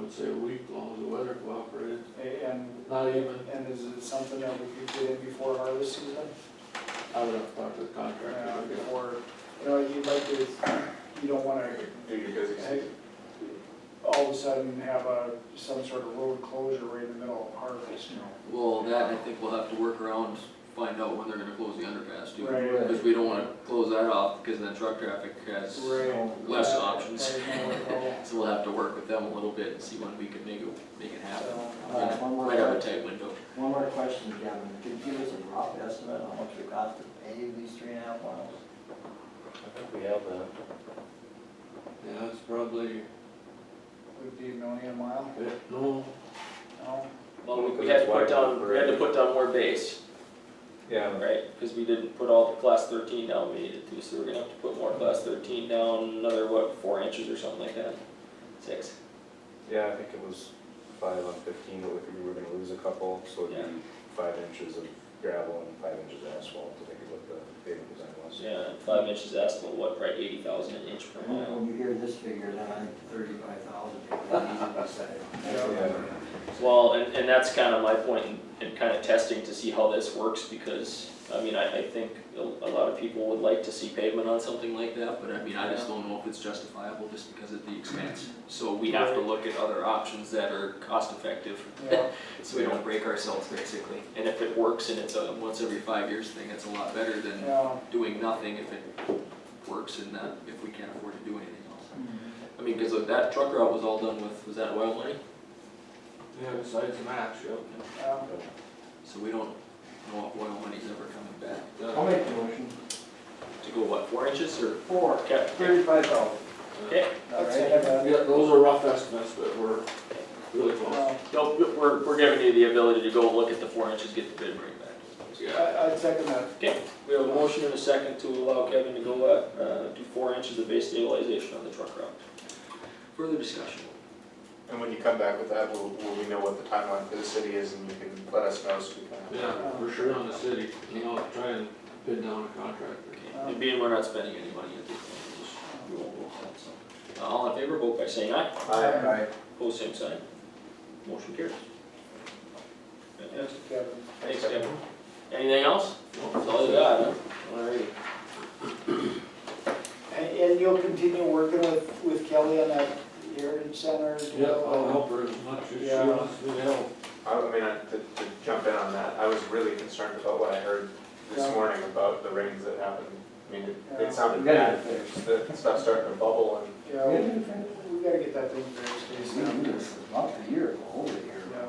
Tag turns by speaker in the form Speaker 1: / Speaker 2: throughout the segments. Speaker 1: would say a week, as long as the weather cooperated,
Speaker 2: And,
Speaker 1: not even,
Speaker 2: and is it something that we could get in before harvest season?
Speaker 1: I would have talked to the contractor.
Speaker 2: Uh,
Speaker 1: I guess.
Speaker 2: Before, you know, you'd like to, you don't wanna
Speaker 3: Do your busy season.
Speaker 2: all of a sudden have a, some sort of road closure right in the middle of harvest, you know?
Speaker 4: Well, that, I think we'll have to work around, find out when they're gonna close the underpass too.
Speaker 2: Right.
Speaker 4: Because we don't wanna close that off, because then truck traffic has,
Speaker 2: Right.
Speaker 4: Less options.
Speaker 2: Right, no, no.
Speaker 4: so we'll have to work with them a little bit and see when we can make it, make it happen.
Speaker 2: So,
Speaker 5: All right, one more,
Speaker 4: Might have a
Speaker 5: que-
Speaker 4: tight window.
Speaker 5: one more question, Kevin. Could you give us a rough estimate on how much it cost to pave these three and a half miles?
Speaker 6: I think we have that.
Speaker 1: Yeah, it's probably,
Speaker 2: Would be a million a mile,
Speaker 1: yeah, no,
Speaker 2: no?
Speaker 7: Well, we- we had to put down, we had to put down more base,
Speaker 3: Yeah,
Speaker 7: right? Because we didn't put all the class thirteen down we needed to, so we're gonna have to put more class thirteen down, another, what, four inches or something like that? Six,
Speaker 3: yeah, I think it was five on fifteen, but we were gonna lose a couple, so it'd be five inches of gravel and five inches of asphalt, I think is what the pavement design was.
Speaker 7: yeah, and five inches asphalt, what, right, eighty thousand an inch per
Speaker 5: And
Speaker 7: mile?
Speaker 5: When you hear this figure, then I think thirty-five thousand.
Speaker 3: Yeah.
Speaker 7: Well, and, and that's kind of my point in, in kind of testing to see how this works, because, I mean, I, I think a a lot of people would like to see pavement on something
Speaker 4: Something like that, but I mean, I just don't know if it's justifiable just because of the expense. So we have to look at other options that are cost effective,
Speaker 2: Yeah,
Speaker 4: so we don't break ourselves basically. And if it works and it's a once every five years thing, it's a lot better than
Speaker 2: yeah,
Speaker 4: doing nothing if it works and that, if we can't afford to do anything else.
Speaker 3: Hmm.
Speaker 4: I mean, cause of that truck route was all done with, was that oil money?
Speaker 1: yeah, besides the match, yep.
Speaker 2: yeah.
Speaker 4: So we don't know if oil money's ever coming back.
Speaker 5: I'll
Speaker 1: Yeah.
Speaker 5: make the motion.
Speaker 4: To go what, four inches or?
Speaker 5: Four.
Speaker 7: Okay,
Speaker 5: Thirty-five thousand.
Speaker 7: okay,
Speaker 5: All
Speaker 2: Let's
Speaker 5: right.
Speaker 2: have that.
Speaker 1: Yeah, those are rough estimates, but we're really close.
Speaker 2: No,
Speaker 7: no, we're, we're giving you the ability to go look at the four inches, get the bid, bring it back.
Speaker 1: Yeah,
Speaker 2: I, I'd second that.
Speaker 7: Okay, we have a motion and a second to allow Kevin to go up, uh, do four inches of base stabilization on the truck route.
Speaker 4: Further discussion.
Speaker 3: And when you come back with that, will, will we know what the timeline for the city is and you can let us know so we can.
Speaker 1: yeah, for sure on the city, you know, try and pin down a contractor.
Speaker 4: Okay, and being we're not spending any money at this point, we just- we won't vote on it, so. Uh, All in favor, vote by saying aye.
Speaker 3: Aye.
Speaker 5: All right.
Speaker 7: Pose same sign. Motion carries. Fantastic.
Speaker 2: Kevin.
Speaker 7: Thanks, Kevin. Anything else?
Speaker 1: No,
Speaker 7: That's all you got, huh? Alrighty.
Speaker 2: And, and you'll continue working with, with Kelly on that Heritage Center?
Speaker 1: Yeah, I'll help her as much as she
Speaker 2: Yeah.
Speaker 1: wants me to help.
Speaker 3: I I mean, I- to, to jump in on that, I was really concerned about what I heard this
Speaker 2: Yeah.
Speaker 3: morning about the rains that happened. I mean, it-
Speaker 2: Yeah.
Speaker 3: it sounded
Speaker 5: We gotta
Speaker 3: bad,
Speaker 5: get fixed.
Speaker 3: the stuff starting to bubble and
Speaker 2: Yeah, we we gotta get that thing fixed,
Speaker 5: We
Speaker 2: ASAP.
Speaker 5: knew this was about a year ago, over a year ago.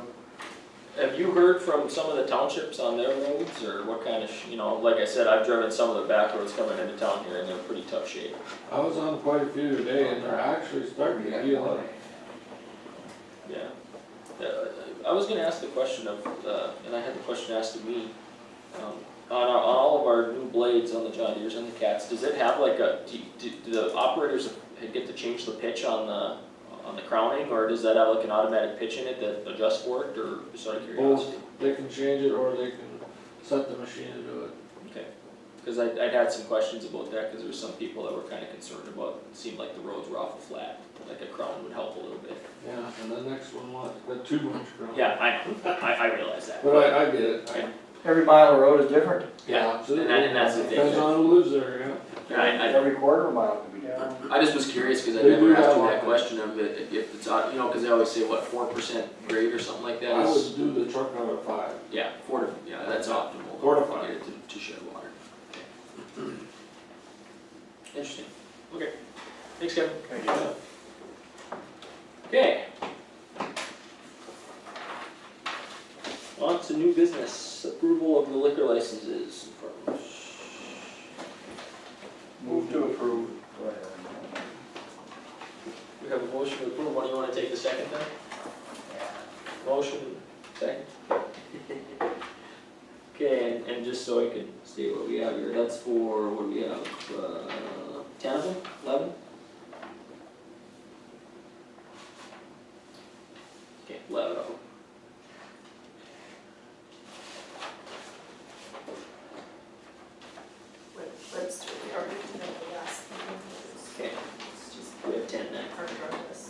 Speaker 2: Yeah.
Speaker 7: Have you heard from some of the townships on their roads, or what kind of, sh- you know, like I said, I've driven some of the back roads coming into town here, and they're pretty tough shape.
Speaker 1: I was on quite a few today and they're actually starting to heal up.
Speaker 7: Yeah. Uh, I was gonna ask the question of, uh, and I had the question asked of me, um, on, our- on all of our new blades on the John Deere's and the Cats, does it have like a, do, do do the operators get to change the pitch on the, on the crowning, or does that have like an automatic pitch in it that adjusts for it, or just out of
Speaker 1: Both,
Speaker 7: curiosity?
Speaker 1: they can change it or they can set the machine to do it.
Speaker 7: Okay, cause I, I'd had some questions about that, cause there was some people that were kinda concerned about, it seemed like the roads were awful flat, like a crown would help a little bit.
Speaker 1: Yeah, and the next one, what, the two bunch ground.
Speaker 7: Yeah, I, I, I realize that.
Speaker 1: But I, I get it. I-
Speaker 7: Yeah.
Speaker 5: Every mile of road is different.
Speaker 7: Yeah, and
Speaker 1: absolutely.
Speaker 7: that- and that's the thing.
Speaker 1: Depends on who lives there, yeah.
Speaker 7: And I, I,
Speaker 5: Every quarter of a mile could be different.
Speaker 2: Yeah,
Speaker 4: I just was curious because I
Speaker 1: They do
Speaker 4: never asked
Speaker 1: have
Speaker 4: you
Speaker 1: one.
Speaker 4: that question of it, if it's,
Speaker 7: uh,
Speaker 4: on- you know, because they always say, what, four percent grade or something like that
Speaker 1: I
Speaker 4: is,
Speaker 1: would do the truck number five.
Speaker 4: yeah, four to, yeah, that's optimal.
Speaker 1: Four to
Speaker 4: to
Speaker 1: five.
Speaker 4: get it To, to shed water.
Speaker 7: Interesting. Okay. Thanks, Kevin. Okay. On to new business, approval of the liquor licenses.
Speaker 5: Move to approve.
Speaker 7: We have a motion to approve. Why do you wanna take the second then? Motion, second. Okay, and, and just so I can state what we have here, that's for, what do we have, uh, ten of them, eleven? Okay, eleven of them.